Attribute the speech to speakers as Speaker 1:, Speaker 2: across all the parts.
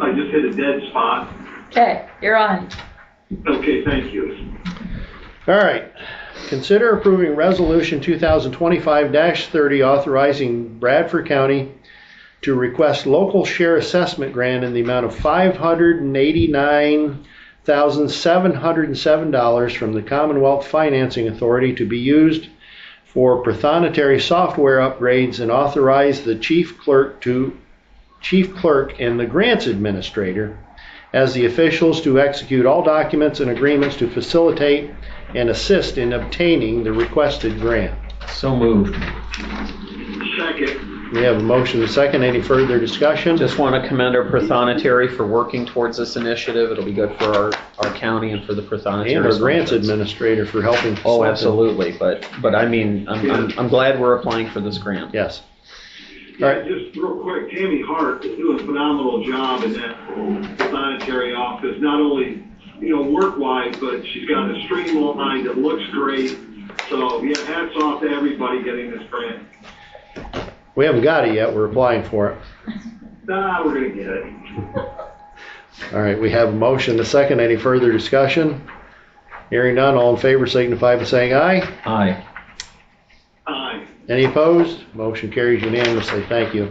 Speaker 1: I just hit a dead spot.
Speaker 2: Okay, you're on.
Speaker 1: Okay, thank you.
Speaker 3: All right. Consider approving Resolution 2025-30 authorizing Bradford County to request local share assessment grant in the amount of $589,707 from the Commonwealth Financing Authority to be used for prothonotary software upgrades and authorize the chief clerk to, chief clerk and the grants administrator as the officials to execute all documents and agreements to facilitate and assist in obtaining the requested grant.
Speaker 4: So moved.
Speaker 1: Second,
Speaker 3: We have a motion and a second. Any further discussion?
Speaker 4: Just want to commend our Prothonotary for working towards this initiative. It'll be good for our, our county and for the Prothonotary.
Speaker 3: And our grants
Speaker 4: functions.
Speaker 3: administrator for helping.
Speaker 4: Oh,
Speaker 3: facilitate.
Speaker 4: absolutely, but, but I mean, I'm, I'm, I'm glad we're applying for this grant.
Speaker 3: Yes. All
Speaker 1: yeah,
Speaker 3: right.
Speaker 1: just real quick, Tammy Hart is doing a phenomenal job in that sanitary office, not only, you know, work-wise, but she's got a streamlined, it looks great. So, yeah, hats off to everybody getting this grant.
Speaker 3: We haven't got it yet. We're applying for it.
Speaker 1: Nah, we're gonna get it.
Speaker 3: All right, we have a motion and a second. Any further discussion? Hearing none, all in favor signify by saying aye.
Speaker 4: Aye.
Speaker 1: Aye.
Speaker 3: Any opposed? Motion carries unanimously. Thank you.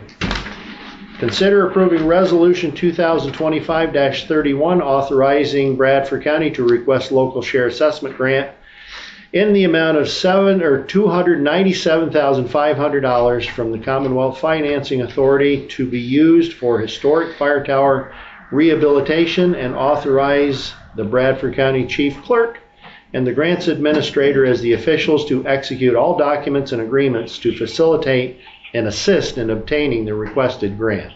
Speaker 3: Consider approving Resolution 2025-31, authorizing Bradford County to request local share assessment grant in the amount of seven, or $297,500 from the Commonwealth Financing Authority to be used for historic fire tower rehabilitation and authorize the Bradford County Chief Clerk and the grants administrator as the officials to execute all documents and agreements to facilitate and assist in obtaining the requested grant.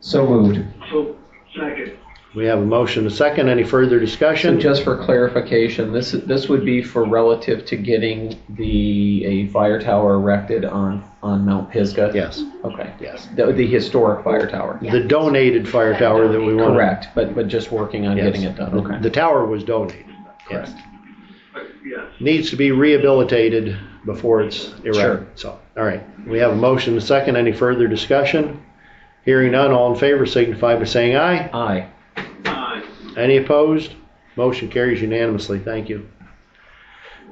Speaker 4: So moved.
Speaker 1: So, second,
Speaker 3: We have a motion, a second. Any further
Speaker 4: So
Speaker 3: discussion?
Speaker 4: just for clarification, this, this would be for relative to getting the, a fire tower erected on, on Mount Pisgah?
Speaker 3: Yes,
Speaker 4: Okay.
Speaker 3: yes.
Speaker 4: The, the historic fire tower?
Speaker 3: The donated fire tower that we want.
Speaker 4: Correct, but, but just working on getting it done, okay.
Speaker 3: The tower was donated. Yes.
Speaker 1: Uh, yes.
Speaker 3: Needs to be rehabilitated before it's
Speaker 4: Sure.
Speaker 3: erected. So, all right. We have a motion, a second. Any further discussion? Hearing none, all in favor signify by saying aye.
Speaker 4: Aye.
Speaker 1: Aye.
Speaker 3: Any opposed? Motion carries unanimously. Thank you.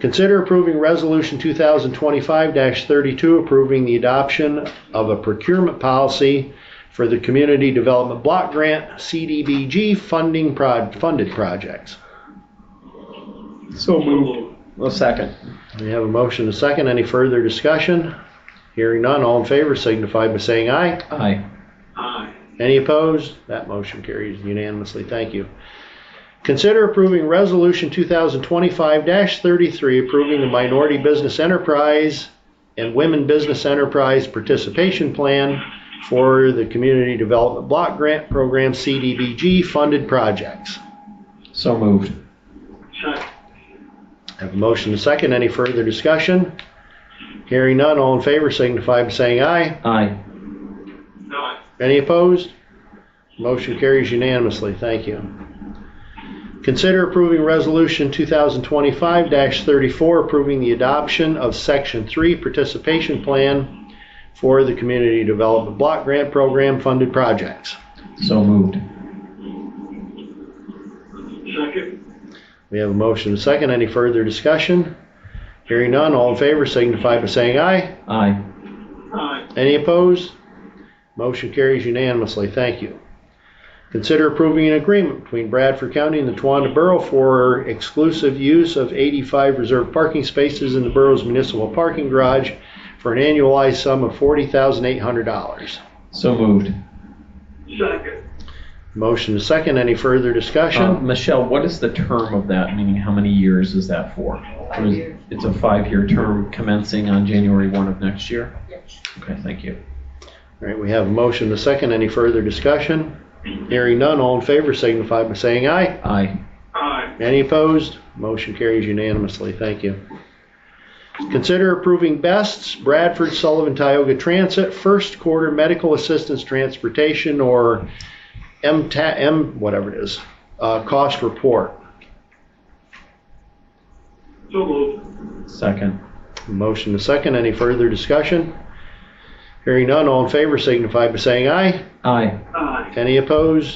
Speaker 3: Consider approving Resolution 2025-32, approving the adoption of a procurement policy for the Community Development Block Grant, CDBG funding prod, funded projects.
Speaker 4: So moved. Well, second.
Speaker 3: We have a motion and a second. Any further discussion? Hearing none, all in favor signify by saying aye.
Speaker 4: Aye.
Speaker 1: Aye.
Speaker 3: Any opposed? That motion carries unanimously. Thank you. Consider approving Resolution 2025-33, approving the Minority Business Enterprise and Women Business Enterprise Participation Plan for the Community Development Block Grant Program, CDBG, funded projects.
Speaker 4: So moved.
Speaker 1: Second,
Speaker 3: Have a motion to second. Any further discussion? Hearing none, all in favor signify by saying aye.
Speaker 4: Aye.
Speaker 1: aye.
Speaker 3: Any opposed? Motion carries unanimously. Thank you. Consider approving Resolution 2025-34, approving the adoption of Section 3 Participation Plan for the Community Development Block Grant Program funded projects.
Speaker 4: So moved.
Speaker 1: Second,
Speaker 3: We have a motion and a second. Any further discussion? Hearing none, all in favor signify by saying aye.
Speaker 4: Aye.
Speaker 1: aye.
Speaker 3: Any opposed? Motion carries unanimously. Thank you. Consider approving an agreement between Bradford County and the Tawanda Borough for exclusive use of 85 reserved parking spaces in the borough's municipal parking garage for an annualized sum of $40,800.
Speaker 4: So moved.
Speaker 1: Second,
Speaker 3: Motion is second. Any further
Speaker 4: Uh,
Speaker 3: discussion?
Speaker 4: Michelle, what is the term of that? Meaning, how many years is that for? Or is- It's a five-year term commencing on January 1 of next year? Okay, thank you.
Speaker 3: All right, we have a motion to second. Any further discussion? Hearing none, all in favor signify by saying aye.
Speaker 4: Aye.
Speaker 1: aye.
Speaker 3: Any opposed? Motion carries unanimously. Thank you. Consider approving Best's Bradford Sullivan Tioga Transit First Quarter Medical Assistance Transportation or MTA, M, whatever it is, uh, cost report.
Speaker 1: So moved.
Speaker 4: Second.
Speaker 3: Motion to second. Any further discussion? Hearing none, all in favor signify by saying aye.
Speaker 4: Aye.
Speaker 1: Aye.
Speaker 3: Any opposed?